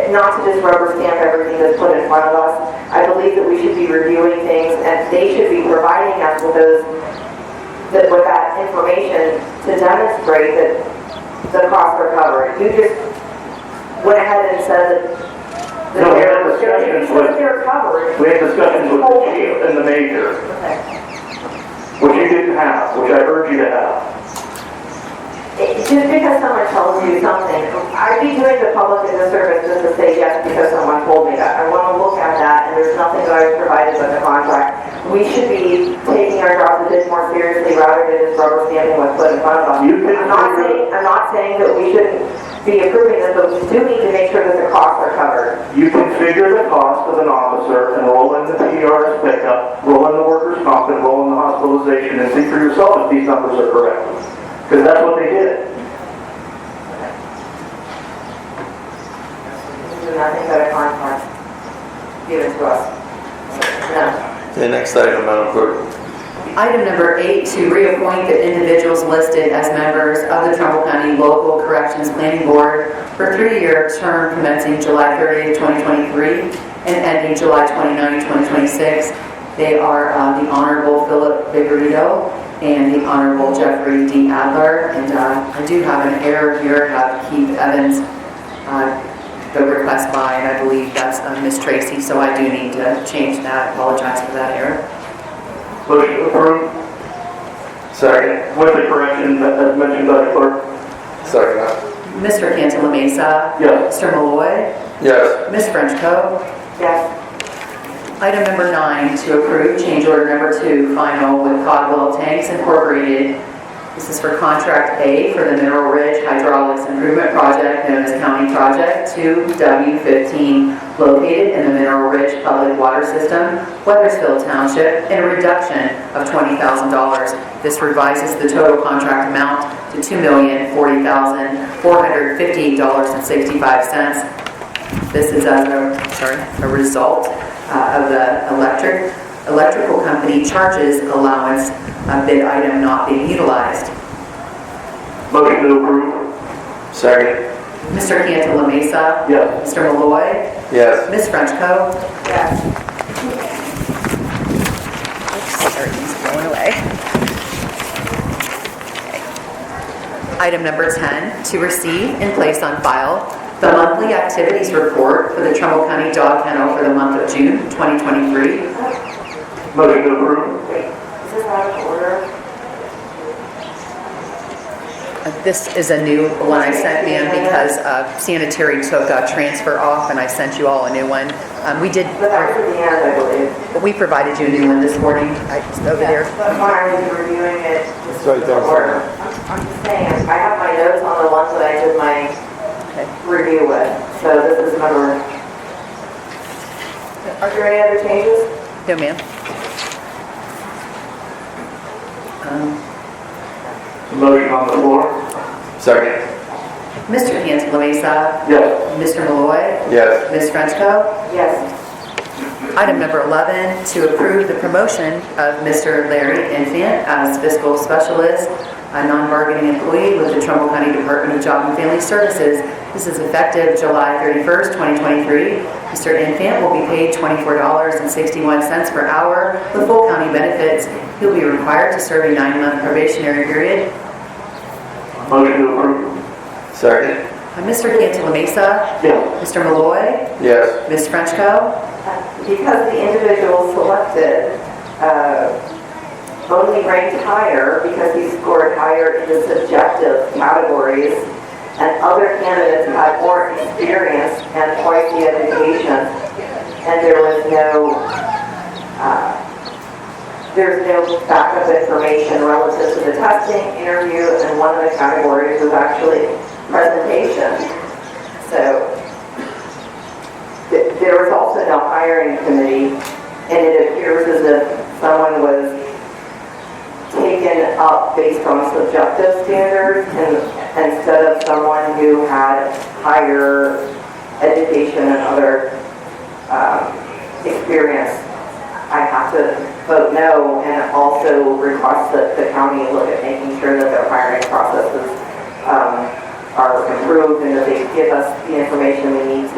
and not to just rubber stamp everything that's put in front of us. I believe that we should be reviewing things, and they should be providing us with those, that- with that information to demonstrate that the costs are covered. You just went ahead and said that. No, we had discussions with- That They're covered. We had discussions with the chief and the major, which you didn't have, which I urge you to have. It- Just because someone tells you something, I'd be doing the public a disservice just to say yes because someone told me that. I want to look at that, and there's nothing that I've provided in the contract. We should be taking our jobs a bit more seriously rather than just rubber stamping what's put in front of us. You can- I'm not saying, I'm not saying that we shouldn't be approving this, but we do need to make sure that the costs are covered. You can figure the cost of an officer and roll in the PR's pickup, roll in the workers' comp, and roll in the hospitalization, and see for yourself if these numbers are correct. Because that's what they did. We do nothing but a contract given to us. No. The next item, Madam Clerk. Item number eight, to reappoint the individuals listed as members of the Trumbull County Local Corrections Planning Board for a three-year term commencing July 30, 2023, and ending July 29, 2026. They are uh, the Honorable Philip Vigorito and the Honorable Jeffrey D. Adler. And uh, I do have an error here, I have Keith Evans, uh, the request by, and I believe that's uh, Miss Tracy, so I do need to change that, apologize for that error. Motion approved. Second. With the correction that as mentioned by the clerk. Second. Mr. Cantala Mesa. Yes. Mr. Malloy. Yes. Ms. Frenchco. Yes. Item number nine, to approve change order number two, final with Codwell Tanks Incorporated. This is for contract A for the Mineral Ridge Hydraulics Improvement Project, known as County Project 2W15, located in the Mineral Ridge Public Water System, Weathersfield Township, and a reduction of $20,000. This revises the total contract amount to $2,040,458.65. This is as a, sorry, a result uh, of the electric, electrical company charges allowance uh, bid item not being utilized. Motion to approve. Second. Mr. Cantala Mesa. Yes. Mr. Malloy. Yes. Ms. Frenchco. Everything's going away. Item number 10, to receive and place on file the monthly activities report for the Trumbull County Dog Kennel for the month of June 2023. Motion to approve. Wait, is this out of order? Uh, This is a new one I sent in because uh, sanitary took a transfer off and I sent you all a new one. Um, We did, But that was at the end, I believe. we provided you a new one this morning, I- it's over there. But when I was reviewing it, this It's right was there. the order. I'm just saying, I have my notes on the ones that I did my Okay. review with, so this is number. Are there any other changes? No, ma'am. Um, Motion on the floor. Second. Mr. Cantala Mesa, Yes. Mr. Malloy, Yes. Ms. Frenchco. Yes. Item number 11, to approve the promotion of Mr. Larry Infant as fiscal specialist, a non-bargaining employee with the Trumbull County Department of Job and Family Services. This is effective July 31st, 2023. Mr. Infant will be paid $24.61 per hour with full county benefits. He'll be required to serve a nine-month probationary period. Motion to approve. Second. Uh, Mr. Cantala Mesa, Yes. Mr. Malloy, Yes. Ms. Frenchco. Because the individual selected, uh, only ranked higher because he scored higher in the subjective categories, and other candidates had more experience and twice the education, and there was no, uh, there's no backup information relative to the testing, interview, and one of the categories was actually presentation. So th- there was also no hiring committee, and it appears as if someone was taken up based on subjective standards and instead of someone who had higher education and other um, experience. I have to vote no and also request that the county look at making sure that their hiring processes um, are improved and that they give us the information we need to